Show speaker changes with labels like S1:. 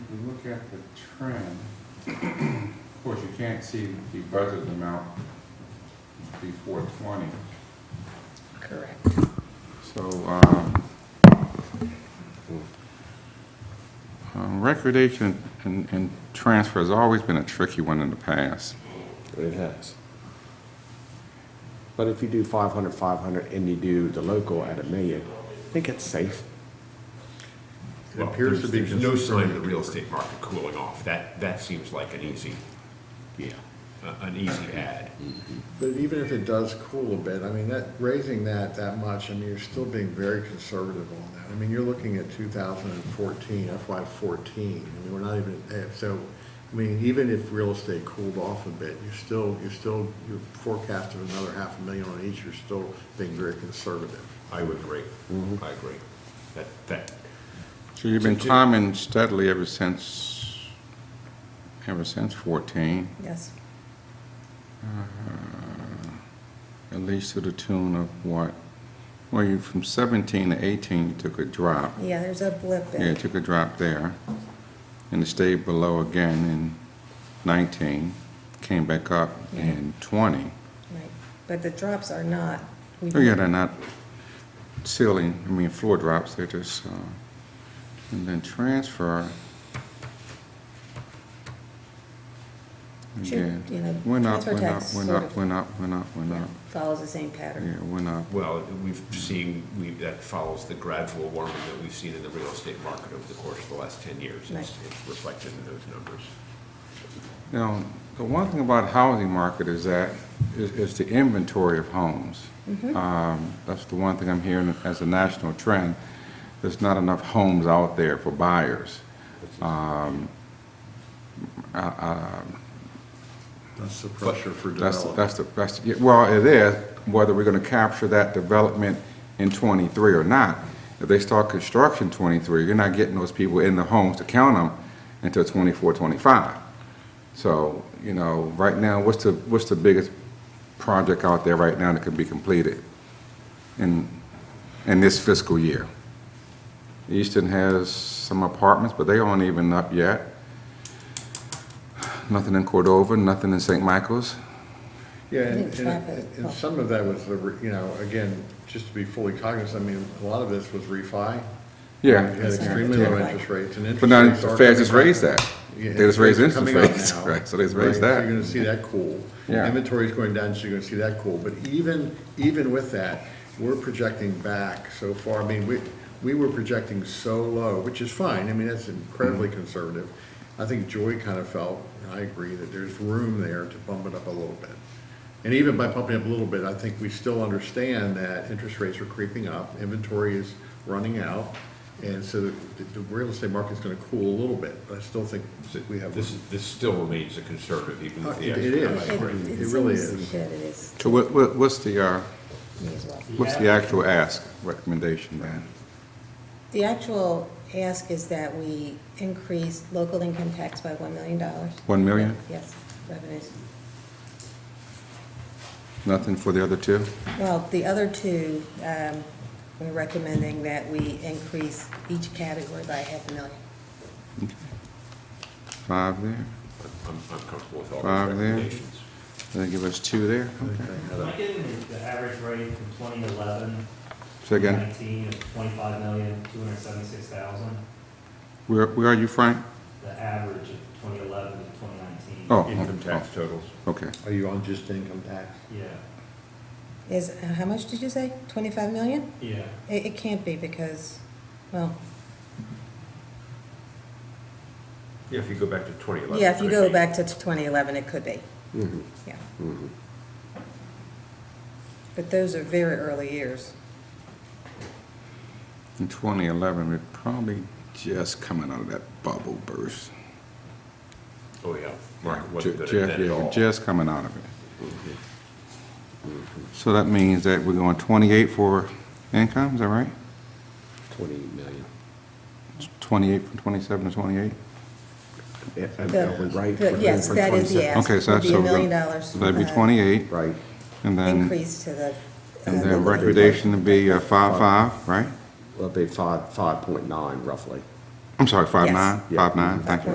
S1: if you look at the trend, of course, you can't see the budget amount before twenty.
S2: Correct.
S1: So, um, um, recordation and, and transfer has always been a tricky one in the past.
S3: It has. But if you do 500, 500, and you do the local at a million, I think it's safe.
S4: It appears to be no sign of the real estate market cooling off. That, that seems like an easy,
S3: Yeah.
S4: uh, an easy add.
S5: But even if it does cool a bit, I mean, that, raising that that much, I mean, you're still being very conservative on that. I mean, you're looking at 2014, FY '14, I mean, we're not even, eh, so, I mean, even if real estate cooled off a bit, you're still, you're still, your forecast of another half a million on each, you're still being very conservative.
S4: I would agree.
S3: Mm-hmm.
S4: I agree. That, that,
S1: So you've been
S4: So do-
S1: climbing steadily ever since, ever since fourteen,
S2: Yes.
S1: at least to the tune of what? Well, you, from seventeen to eighteen, you took a drop.
S2: Yeah, there's a blip
S1: Yeah,
S2: in.
S1: it took a drop there, and it stayed below again in 19, came back up in 20.
S2: Right. But the drops are not. we-
S1: Oh, yeah, they're not ceiling, I mean, floor drops, they're just, uh, and then transfer.
S2: Should,
S1: Again,
S2: you know,
S1: went up,
S2: transfer
S1: went up,
S2: tax
S1: went
S2: sort
S1: up,
S2: of-
S1: Went up, went up, went
S2: Yeah,
S1: up,
S2: Follows the same pattern.
S1: yeah, went up.
S4: well, we've seen, we, that follows the gradual warming that we've seen in the real estate market over the course of the last ten years. It's,
S2: Right.
S4: it's reflected in those numbers.
S1: Now, the one thing about housing market is that, is, is the inventory of homes. Um, That's the one thing I'm hearing as a national trend. There's not enough homes out there for buyers.
S5: That's the pressure for
S1: That's,
S5: development.
S1: that's the, that's, the- well, it is, whether we're gonna capture that development in twenty-three or not. If they start construction twenty-three, you're not getting those people in the homes to count them until 24, 25. So, you know, right now, what's the, what's the biggest project out there right now that can be completed in, in this fiscal year? Easton has some apartments, but they aren't even up yet. Nothing in Cordova, nothing in St. Michael's.
S5: Yeah,
S2: I
S5: and,
S2: think traffic
S5: and and
S2: helped.
S5: some of that was, the re- you know, again, just to be fully cognizant, I mean, a lot of this was refi.
S1: Yeah.
S5: We had extremely low
S2: Yeah.
S5: interest rates and interest
S1: But now
S5: rates
S1: the
S5: are
S1: Fed just
S5: coming
S1: raised
S5: back.
S1: that.
S5: Yeah,
S1: They just raised
S5: rates
S1: interest
S5: are coming up
S1: rates,
S5: now.
S1: right, so they just
S5: Right,
S1: raised
S5: so
S1: that.
S5: You're gonna see that cool.
S1: Yeah.
S5: Inventory's going down, so you're gonna see that cool, but even, even with that, we're projecting back so far, I mean, we, we were projecting so low, which is fine, I mean, that's incredibly conservative. I think Joy kind of felt, and I agree, that there's room there to bump it up a little bit. And even by bumping up a little bit, I think we still understand that interest rates are creeping up, inventory is running out, and so the, the real estate market's gonna cool a little bit, but I still think that we have.
S4: This, this still remains a conservative, even
S5: Uh,
S4: if the.
S5: it- it
S4: economic
S5: is.
S2: It-
S4: growth-
S5: It really
S2: seems
S5: is.
S2: That it is,
S1: So what, what, what's the, uh,
S2: me as well.
S1: what's the actual ask recommendation then?
S2: The actual ask is that we increase local income tax by $1 million.
S1: One million?
S2: Yes, revenues.
S1: Nothing for the other two?
S2: Well, the other two, um, we're recommending that we increase each category by half a million.
S1: Five there?
S4: I'm, I'm comfortable with all
S1: Five
S4: those
S1: there.
S4: recommendations.
S1: Then give us two there? Okay.
S6: Am I getting the- the average rate from 2011?
S1: Say again,
S6: 19 of 25,276,000,
S1: where, where are you, Frank?
S6: the average of 2011 to 2019.
S1: Oh,
S4: Income
S1: oh,
S4: tax totals.
S1: okay.
S5: Are you on just income tax?
S6: Yeah,
S2: Is, uh, how much did you say? 25 million?
S6: yeah.
S2: It, it can't be because, well,
S4: Yeah, if you go back to twenty eleven.
S2: yeah, if you go back to 2011, it could be,
S3: Mm-hmm.
S2: yeah. But those are very early years.
S1: In twenty eleven, we're probably just coming out of that bubble burst.
S4: Oh, yeah. Market wasn't
S1: Ju-
S4: good
S1: ju-
S4: at that
S1: yeah,
S4: at
S1: we're
S4: all.
S1: Just coming out of it. So that means that we're going twenty-eight for income, is that right?
S3: 20 million.
S1: 28 from 27 to twenty-eight?
S3: Yeah, and
S2: The-
S3: Are we right?
S2: the-
S3: We're good
S2: yes,
S3: for
S2: that is the
S3: 27?
S2: ask.
S1: Okay, so
S2: Would
S1: that's,
S2: be a
S1: so
S2: million
S1: the-
S2: dollars
S1: so that'd be
S2: for the
S1: 28,
S3: Right.
S1: and then,
S2: Increase to the. uh,
S1: and
S2: local
S1: then recommendation to be uh,
S3: Five.
S1: 5.5, right?
S3: Well, it'd be 5, 5.9 roughly.
S1: I'm sorry, five
S2: Yes.
S1: nine,
S3: Yeah.
S1: five nine, thank you.